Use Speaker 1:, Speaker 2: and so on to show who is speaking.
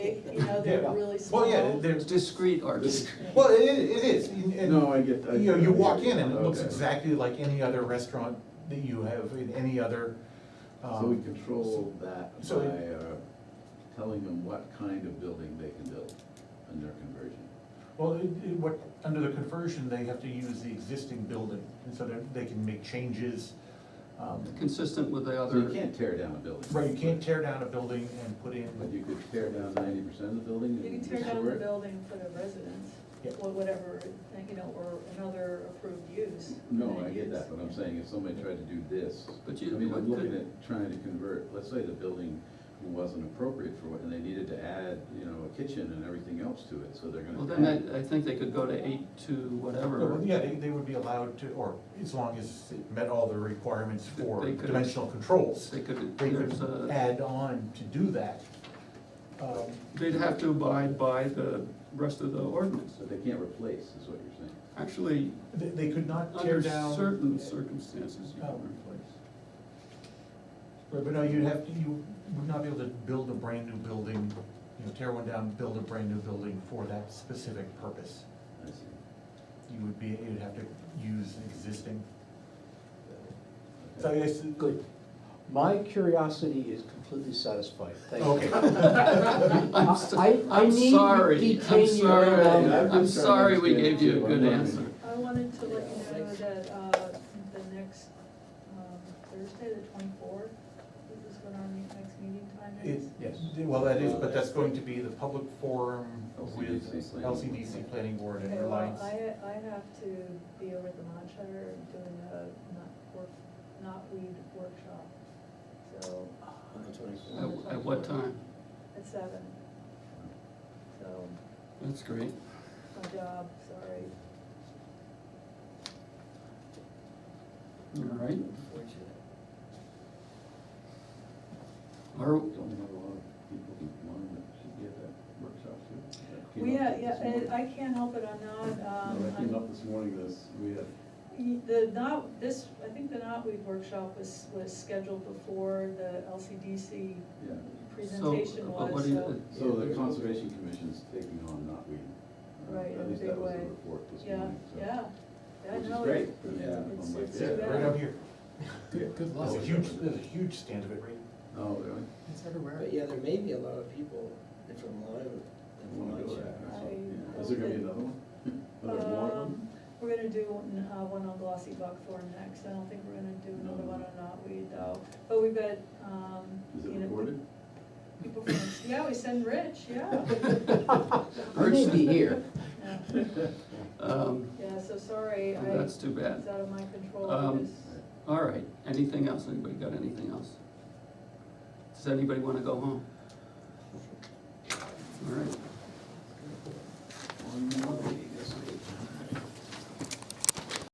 Speaker 1: but you know, they're
Speaker 2: Yeah.
Speaker 1: really small.
Speaker 2: Well, yeah, there's just,
Speaker 3: Discrete or
Speaker 2: well, it, it is, and, and,
Speaker 4: No, I get- I-
Speaker 2: You know, you
Speaker 4: I
Speaker 2: walk
Speaker 4: get it.
Speaker 2: in and it looks
Speaker 4: Okay.
Speaker 2: exactly like any other restaurant that you have in any other,
Speaker 4: So we
Speaker 2: um,
Speaker 4: control that by
Speaker 2: so-
Speaker 4: uh, telling them what kind of building they can build in their conversion.
Speaker 2: Well, it, it, what, under the conversion, they have to use the existing building, and so they, they can make changes. um,
Speaker 3: Consistent with the
Speaker 4: So you
Speaker 3: other,
Speaker 4: can't tear down a building.
Speaker 2: Right, you can't tear down a building and put in,
Speaker 4: But you could tear down ninety percent of the building
Speaker 1: You can
Speaker 4: and
Speaker 1: tear
Speaker 4: restore it.
Speaker 1: down the building for the residence,
Speaker 2: Yeah.
Speaker 1: or whatever, you know, or another approved use.
Speaker 4: No, I get that, but I'm saying if somebody tried to do this,
Speaker 3: But
Speaker 4: I
Speaker 3: you-
Speaker 4: mean, I'm
Speaker 3: but
Speaker 4: looking
Speaker 3: could-
Speaker 4: at trying to convert, let's say the building wasn't appropriate for it, and they needed to add, you know, a kitchen and everything else to it, so they're
Speaker 3: well,
Speaker 4: gonna.
Speaker 3: then
Speaker 4: add-
Speaker 3: I, I think they could go to eight to whatever.
Speaker 2: Well, yeah, they, they would be allowed to, or as long as it met all the requirements for
Speaker 3: They could-
Speaker 2: dimensional controls.
Speaker 3: They could,
Speaker 2: They
Speaker 3: there's
Speaker 2: could
Speaker 3: a,
Speaker 2: add on to do that. Um,
Speaker 3: they'd have to abide by the rest of the ordinance.
Speaker 4: So they can't replace, is what you're saying.
Speaker 3: Actually,
Speaker 2: They, they could not tear
Speaker 3: under
Speaker 2: down. um,
Speaker 3: certain circumstances, you
Speaker 2: Oh.
Speaker 3: can replace.
Speaker 2: Right, but no, you'd have to, you would not be able to build a brand new building, you know, tear one down, build a brand new building for that specific purpose.
Speaker 4: I see.
Speaker 2: You would be, you'd have to use existing. So I
Speaker 4: Okay.
Speaker 2: guess,
Speaker 5: Good. My curiosity is completely satisfied, thank you.
Speaker 2: okay.
Speaker 3: I'm so-
Speaker 5: I- I
Speaker 3: I'm
Speaker 5: need to
Speaker 3: sorry, I'm
Speaker 5: detain you
Speaker 3: sorry,
Speaker 5: any longer.
Speaker 4: I've
Speaker 3: I'm
Speaker 4: been
Speaker 3: sorry we
Speaker 4: trying to
Speaker 3: gave you a good
Speaker 4: understand
Speaker 3: answer.
Speaker 1: I wanted to let you know that, uh, the next, um, Thursday, the twenty-fourth, this is what our me- next meeting time
Speaker 2: It's,
Speaker 1: is.
Speaker 5: Yes.
Speaker 2: well, that is, but that's going to be the public forum with
Speaker 4: LCDC planning.
Speaker 2: LCDC Planning Board and
Speaker 1: Okay, well,
Speaker 2: Reliance.
Speaker 1: I, I have to be over at the Montshire doing a not work, not weed workshop, so,
Speaker 3: At at what time?
Speaker 1: at seven, so,
Speaker 3: That's great.
Speaker 1: my job, sorry.
Speaker 3: All right. Or,
Speaker 4: Don't we have a lot of people who want to should be at that workshop too? That came
Speaker 1: We,
Speaker 4: up
Speaker 1: yeah,
Speaker 4: this
Speaker 1: yeah, and
Speaker 4: morning.
Speaker 1: I can't help it, I'm not,
Speaker 4: No,
Speaker 1: um,
Speaker 4: that came
Speaker 1: I'm-
Speaker 4: up this morning, this, we had,
Speaker 1: y- the not, this, I think the knotweed workshop was, was scheduled before the LCDC
Speaker 4: yeah,
Speaker 3: so,
Speaker 1: presentation
Speaker 3: but what
Speaker 1: was,
Speaker 3: do
Speaker 1: so.
Speaker 3: you,
Speaker 4: so the conservation commission's taking on knotweed. uh,
Speaker 1: Right, in a
Speaker 4: At least
Speaker 1: big
Speaker 4: that was the
Speaker 1: way.
Speaker 4: report this
Speaker 1: Yeah,
Speaker 4: morning, so.
Speaker 1: yeah, yeah,
Speaker 4: Which is
Speaker 1: no,
Speaker 4: great,
Speaker 1: it-
Speaker 4: but yeah,
Speaker 1: it's-
Speaker 4: I'm like,
Speaker 1: it's
Speaker 4: yeah,
Speaker 1: too
Speaker 2: Right
Speaker 1: bad.
Speaker 2: out here.
Speaker 4: Good- good
Speaker 2: There's a
Speaker 4: luck.
Speaker 2: huge, there's a huge stand of it right
Speaker 4: Oh, really?
Speaker 6: It's everywhere. But yeah, there may be a lot of people that from Lyme,
Speaker 4: I
Speaker 6: that
Speaker 4: don't
Speaker 6: from
Speaker 4: wanna go
Speaker 6: Lyme.
Speaker 4: there, that's all.
Speaker 1: I
Speaker 4: Yeah. Is there gonna be another one? Are there more of
Speaker 1: Um,
Speaker 4: them?
Speaker 1: we're gonna do one, uh, one on glossy buckthorn next, I don't think we're gonna do another
Speaker 4: No.
Speaker 1: one on knotweed though, but we've got, um.
Speaker 4: Is
Speaker 1: you
Speaker 4: it
Speaker 1: know,
Speaker 4: recorded?
Speaker 1: people from- Yeah, we send Rich, yeah.
Speaker 5: I may be here.
Speaker 1: Yeah.
Speaker 3: um,
Speaker 1: Yeah, so sorry, I,
Speaker 3: that's
Speaker 1: it's
Speaker 3: too bad.
Speaker 1: out of my control, I
Speaker 3: Um,
Speaker 1: just,
Speaker 3: All right, anything else? Anybody got anything else? Does anybody wanna go home? All right,